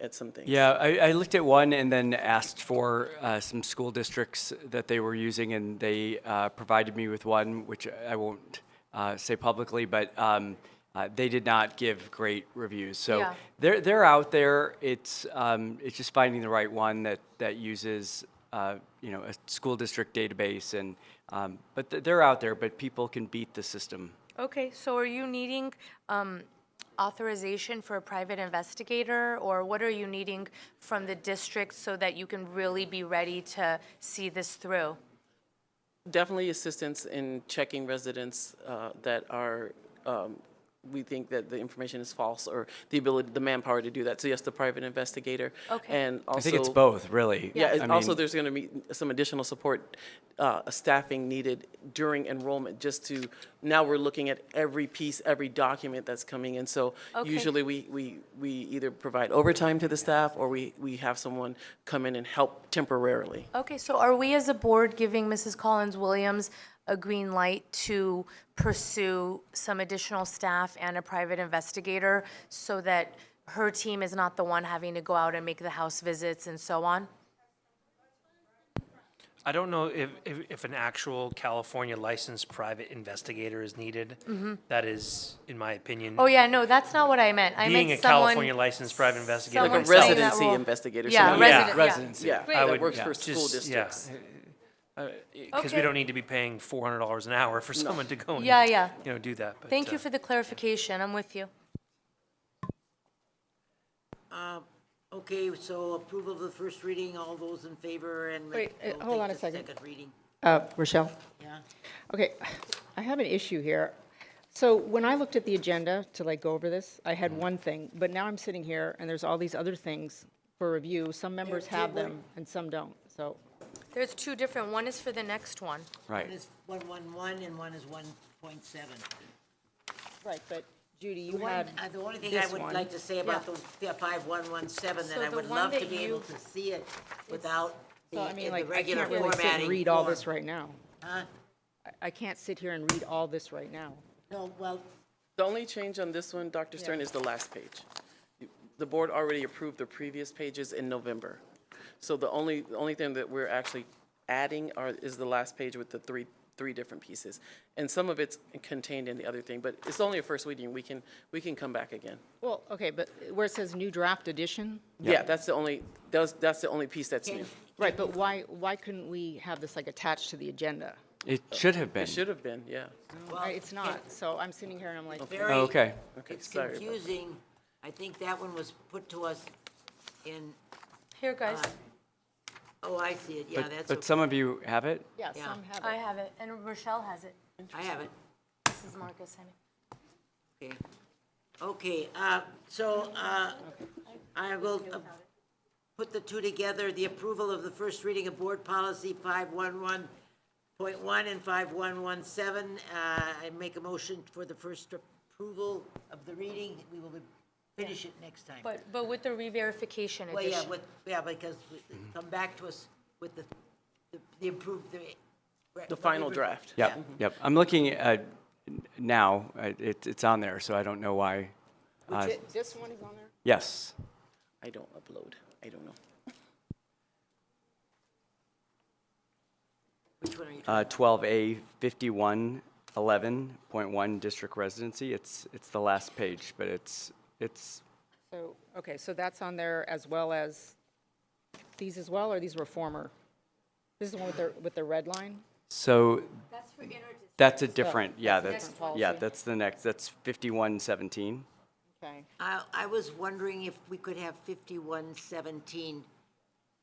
at some things. Yeah, I, I looked at one and then asked for uh, some school districts that they were using, and they uh, provided me with one, which I won't uh, say publicly, but um, uh, they did not give great reviews. So Yeah. they're they're out there. It's um, it's just finding the right one that that uses uh, you know a school district database, and um, but th- they're out there. But people can beat the system. Okay, so are you needing um, authorization for a private investigator, or what are you needing from the district so that you can really be ready to see this through? Definitely assistance in checking residents uh, that are, um, we think that the information is false or the ability, the manpower to do that. So yes, the private investigator. Okay. And also. I think it's both, really. Yeah, I and also mean- there's going to be some additional support, uh, staffing needed during enrollment, just to, now we're looking at every piece, every document that's coming in. So Okay. usually we, we, we either provide overtime to the staff or we, we have someone come in and help temporarily. Okay, so are we as a board giving Mrs. Collins-Williams a green light to pursue some additional staff and a private investigator so that her team is not the one having to go out and make the house visits and so on? I don't know if, if, if an actual California licensed private investigator is needed. That is, in my opinion. Mm-hmm. Oh, yeah, no, that's not what I meant. I meant Being a someone- California licensed private investigator. someone Like a playing that residency role. investigator, so Yeah, like- resident, yeah. residency. Yeah, Great. I that would- works yeah, for school just- yeah. districts. Because Okay. we don't need to be paying four hundred dollars an hour for someone to go and. Yeah, yeah. You know, do that. but, Thank uh, you for the clarification. I'm with you. Okay, so approval of the first reading, all those in favor and. Wait, uh, we'll hold take on a the second. Second reading, Uh, Rochelle? yeah. Okay, I have an issue here. So when I looked at the agenda to like go over this, I had one thing, but now I'm sitting here and there's all these other things for review. Some members have them and some don't, so. There's two different, one is for the next one. Right. One is one one one and one is one point seven. Right, but Judy, you One, had, uh, the only thing I this would one. like to say about the five one one seven, that So I the would one love to that be you- able to see it without so the, I in mean, the like, I regular can't really sit and formatting read all form. this right now. Huh? I- I can't sit here and read all this right now. No, well, The only change on this one, Dr. Stern, is the last page. The board already approved the previous pages in November. So the only, the only thing that we're actually adding are, is the last page with the three, three different pieces. And some of it's contained in the other thing, but it's only a first reading. We can, we can come back again. Well, okay, but where it says new draft edition, Yeah, that's the only, that's, that's the only piece that's new. right, but why, why couldn't we have this like attached to the agenda? It should have been. It should have been, yeah. well. I- It's not, so I'm sitting here and I'm like, very- Oh, Okay. It's sorry about that. confusing. I think that one was put to us in, Here, guys, oh, I see it, yeah, But, that's, but okay. some of you have it. yeah, Yeah. some have it. I have it, and Rochelle has it. I have it. This is Marcus, I mean. Okay, Okay. uh, so uh, I will uh, put the two together, the approval of the first reading of Board Policy 511.1 and 5117. Uh, I make a motion for the first approval of the reading. We will finish it next time. But, but with the re-verification Well, yeah, edition. with, yeah, because we- come back to us with the, the- the improved, the. The final draft. Yep, yep. I'm looking at, now, uh, it, it's on there, so I don't know why. Uh, Thi- This one is on there? Yes, I don't upload. I don't know. Which one are you Uh, talking 12A 5111.1 district residency. It's, it's the last page, but it's, it's, So, okay, so that's on there as well as these as well, or these were former? This is the one with the, with the red line? so That's for inter that's a different, yeah, that's, next policy. yeah, that's the next, that's 5117. Okay. I, I was wondering if we could have fifty-one seventeen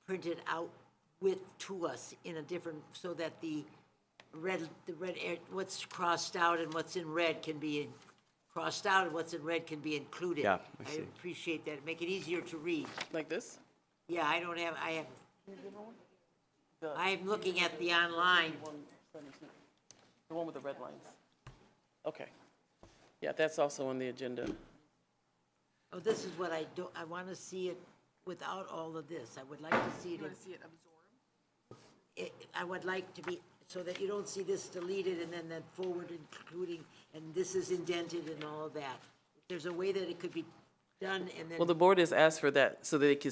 printed out with, to us in a different, so that the red, the red, ar- what's crossed out and what's in red can be in- crossed out and what's in red can be included. Yeah, I see. appreciate that, make it easier to read. Like this? Yeah, I don't have, I have, I'm looking at the online. The one with the red lines. Okay. Yeah, that's also on the agenda. Oh, this is what I do, I want to see it without all of this. I would like to see it. You want to see it absorbed? I would like to be, so that you don't see this deleted and then that forward including, and this is indented and all of that. There's a way that it could be done and then. Well, the board has asked for that so that it can